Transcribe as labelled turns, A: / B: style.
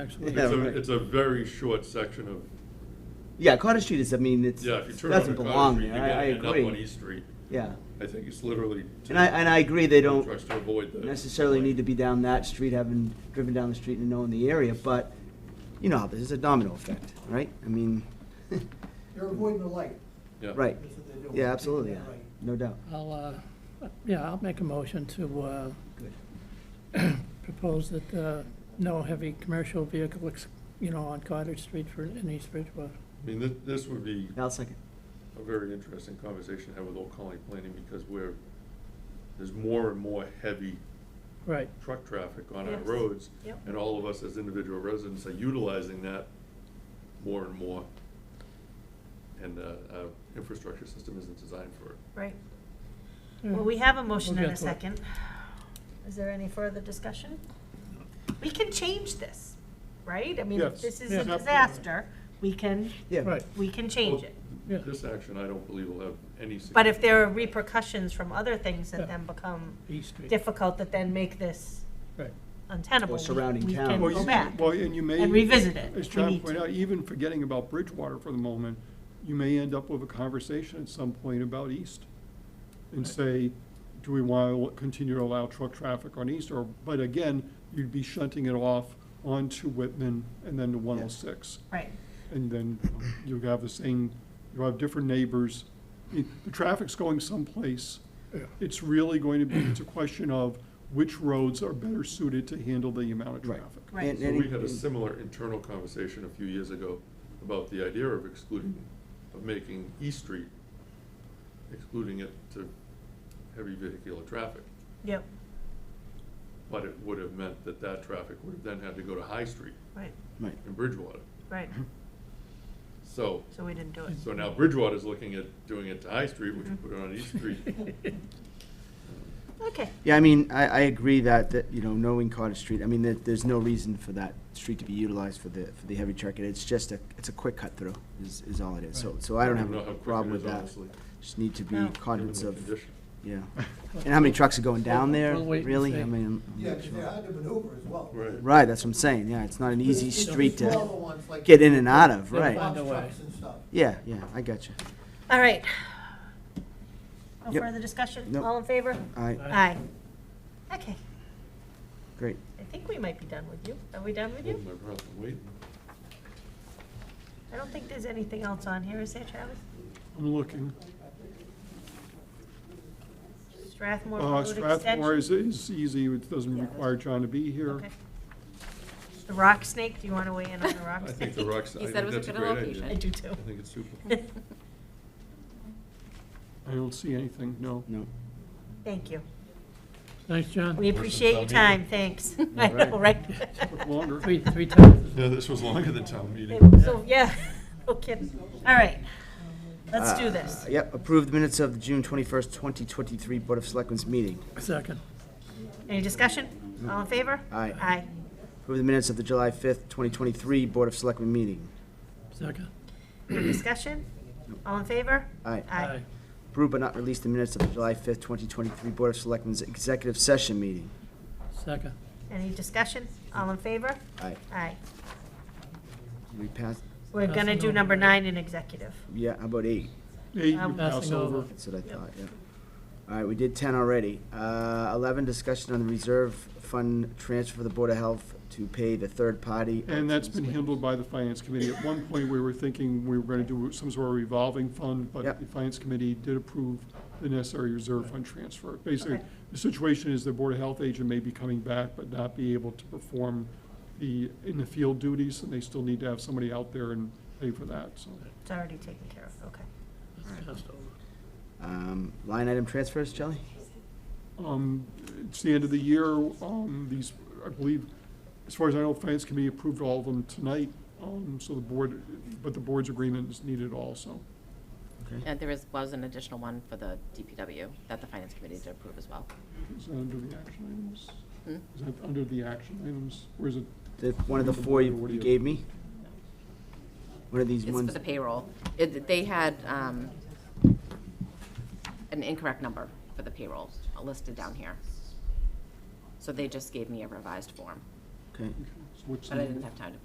A: actually.
B: It's
A: Yeah,
B: a,
A: right.
B: it's a very short section of,
C: Yeah, Cottage Street is, I mean, it's,
B: yeah, if you turn
C: doesn't
B: onto Cottage
C: belong
B: Street, you
C: there, I, I
B: gotta end up on
C: agree.
B: East Street.
C: Yeah,
B: I think it's literally. to-
C: and I, and I agree, they don't
B: Tries to avoid that.
C: necessarily need to be down that street, having driven down the street and knowing the area, but, you know, there's a domino effect, right? I mean,
D: They're avoiding the light.
B: Yeah.
C: right,
D: That's what they're doing.
C: yeah, absolutely, yeah,
D: They're right.
C: no doubt,
A: I'll, uh, yeah, I'll make a motion to uh,
C: good.
A: propose that uh, no heavy commercial vehicle, ex- you know, on Cottage Street for, in East Bridgewater.
B: I mean, this, this would be
C: I'll second,
B: a very interesting conversation to have with Old Colony Planning because we're, there's more and more heavy
A: Right,
B: truck traffic on our
E: Yes.
B: roads.
E: Yep.
B: And all of us as individual residents are utilizing that more and more. And, uh, our infrastructure system isn't designed for it.
E: Right. Well, we have a motion
A: We'll
E: and a
A: get to it.
E: second. Mm-hmm. Is there any further discussion? We can change this, right? I mean,
B: Yes.
E: if this is
A: Yeah.
E: a disaster, we can,
C: yeah,
A: right,
E: we can change it.
A: yeah.
B: This action, I don't believe will have any.
E: But if there are repercussions from other things that then become
A: East Street,
E: difficult, that then make this
A: right.
E: untenable.
C: Or surrounding
E: we- we can
C: towns.
F: Well,
E: go
F: you-
E: back.
F: Well, and you may.
E: and revisit it.
F: As
E: We
F: John
E: need
F: pointed
E: to.
F: out, even forgetting about Bridgewater for the moment, you may end up with a conversation at some point about East. And say, do we want to continue to allow truck traffic on East? Or, but again, you'd be shunting it off onto Whitman and then to one oh six.
E: Right,
F: And then um, you have the same, you have different neighbors. The the traffic's going someplace.
A: Yeah.
F: It's really going to be, it's a question of which roads are better suited to handle the amount of
C: Right.
F: traffic.
E: Right.
C: And-
B: So
C: and-
B: we had a similar internal conversation a few years ago about the idea of excluding, of making East Street, excluding it to heavy vehicular traffic.
E: yep,
B: But it would have meant that that traffic would have then had to go to High Street
E: right,
C: right,
B: in Bridgewater.
E: right,
B: So,
E: so we didn't do it.
B: so now Bridgewater's looking at doing it to High Street, which would put it on East Street.
E: Okay,
C: Yeah, I mean, I, I agree that, that, you know, knowing Cottage Street, I mean, there, there's no reason for that street to be utilized for the, for the heavy truck, and it's just a, it's a quick cut through, is, is all it is, so, so I don't
B: I
C: have
B: don't know how
C: a
B: quick it
C: problem with
B: is,
C: that.
B: honestly,
C: Just need to be
E: No.
B: Given
C: cognizant
B: the
C: of,
B: condition.
C: yeah. And how many trucks are going down there,
A: We'll wait and
C: really?
A: see.
C: I mean, I'm
D: Yeah,
C: not
D: 'cause
C: sure.
D: they're hard to maneuver as well.
B: Right.
C: Right, that's what I'm saying, yeah, it's not an easy
D: It's the
C: street
D: smaller
C: to
D: ones, like
C: get in and out of,
A: They'll
C: right?
A: find- Find
D: box
A: a way.
D: trucks and stuff.
C: Yeah, yeah, I got you.
E: all right. No
C: Yep.
E: further discussion?
C: Nope.
E: All in favor?
C: All right,
E: Aye. Okay,
C: great.
E: I think we might be done with you. Are we done with you?
B: Hold my breath and wait.
E: I don't think there's anything else on here, is there, Travis?
F: I'm looking.
E: Strathmore
F: Uh,
E: Road
F: Strathmore
E: Extension?
F: is, is easy, it doesn't require John to be here.
E: Okay. The rock snake, do you want to weigh in on the rock
B: I
E: snake?
B: think the rocks, I
G: He
B: think
G: said it was a
B: that's a
G: good
B: great idea.
G: location.
E: I do too.
B: I think it's super.
F: I don't see anything, no.
C: No,
E: Thank you.
A: Thanks, John.
E: We appreciate your time, thanks. I know, right?
F: Took longer.
A: Three, three times.
B: Yeah, this was longer than town meeting.
E: So, yeah, no kidding. All right, let's do
C: Uh,
E: this.
C: Yep, approve the minutes of the June twenty-first, twenty twenty-three Board of Selectmen's meeting.
A: Second,
E: Any discussion? All in favor?
C: Aye.
E: Aye.
C: Approve the minutes of the July fifth, twenty twenty-three Board of Selectmen meeting.
A: second.
E: Any discussion? All in favor?
C: Aye.
E: Aye.
C: Approve but not release the minutes of the July fifth, twenty twenty-three Board of Selectmen's executive session meeting.
A: Second,
E: Any discussion? All in favor?
C: Aye.
E: Aye.
C: We passed,
E: We're gonna do number nine in executive.
C: yeah, how about eight?
F: Eight, you
E: I'm
F: pass
A: passing
F: over.
A: over.
C: That's what I thought, yeah. All right, we did ten already. Uh, eleven, discussion on the reserve fund transfer for the Board of Health to pay the third party.
F: And that's been handled by the Finance Committee. At one point, we were thinking we were going to do some sort of revolving fund, but
C: Yep.
F: the Finance Committee did approve the necessary reserve fund transfer. Basically,
E: Okay.
F: the situation is the Board of Health agent may be coming back but not be able to perform the, in the field duties, and they still need to have somebody out there and pay for that, so.
E: It's already taken care of, okay.
A: that's passed over.
C: Um, line item transfers, Shelley?
F: Um, It's the end of the year, um, these, I believe, as far as I know, Finance Committee approved all of them tonight, um, so the board, but the board's agreement is needed also.
G: Uh, There is, was an additional one for the DPW that the Finance Committee did approve as well.
F: Is that under the action items?
G: Hmm?
F: Is that under the action items, or is it?
C: The, one of the four you you gave me? One of these
G: It's for
C: ones?
G: the payroll. It- They had um, an incorrect number for the payroll listed down here. So they just gave me a revised form.
H: Okay.
I: Okay, so what's the
F: but I
I: number?
F: didn't have time to